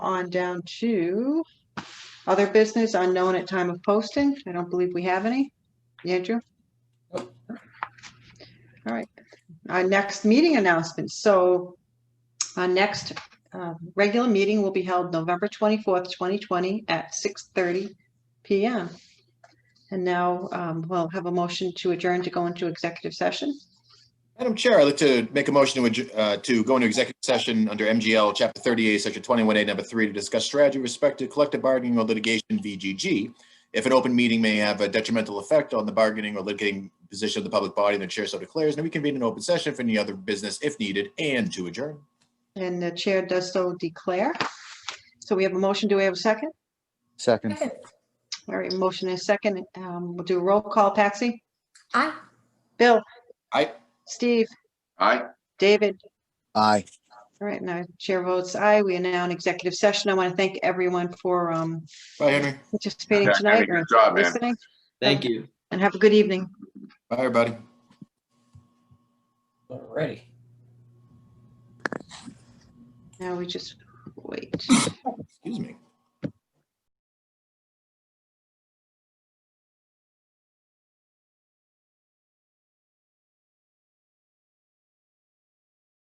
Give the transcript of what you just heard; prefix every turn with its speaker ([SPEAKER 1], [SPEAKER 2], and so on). [SPEAKER 1] on down to other business unknown at time of posting. I don't believe we have any. Andrew? All right, our next meeting announcement. So our next uh, regular meeting will be held November 24th, 2020 at 6:30 PM. And now um, we'll have a motion to adjourn to go into executive session.
[SPEAKER 2] Madam Chair, I'd like to make a motion to, adj- uh, to go into executive session under MGL Chapter 38, Section 21A, Number 3, to discuss strategy with respect to collective bargaining or litigation VGG. If an open meeting may have a detrimental effect on the bargaining or litigating position of the public body, the chair so declares, and we convene an open session for any other business if needed and to adjourn.
[SPEAKER 1] And the chair does so declare. So we have a motion. Do we have a second?
[SPEAKER 3] Second,
[SPEAKER 1] All right, motion is second. Um, We'll do a roll call. Patsy?
[SPEAKER 4] Aye.
[SPEAKER 1] Bill?
[SPEAKER 2] Aye.
[SPEAKER 1] Steve?
[SPEAKER 2] Aye.
[SPEAKER 1] David?
[SPEAKER 3] aye.
[SPEAKER 1] All right, now chair votes aye. We are now in executive session. I want to thank everyone for um,
[SPEAKER 2] Bye, Henry.
[SPEAKER 1] participating
[SPEAKER 5] Yeah,
[SPEAKER 1] tonight or
[SPEAKER 5] Good job, man.
[SPEAKER 1] listening,
[SPEAKER 6] Thank you.
[SPEAKER 1] and have a good evening.
[SPEAKER 2] Bye, everybody.
[SPEAKER 6] Alrighty.
[SPEAKER 1] Now we just wait.
[SPEAKER 2] Excuse me.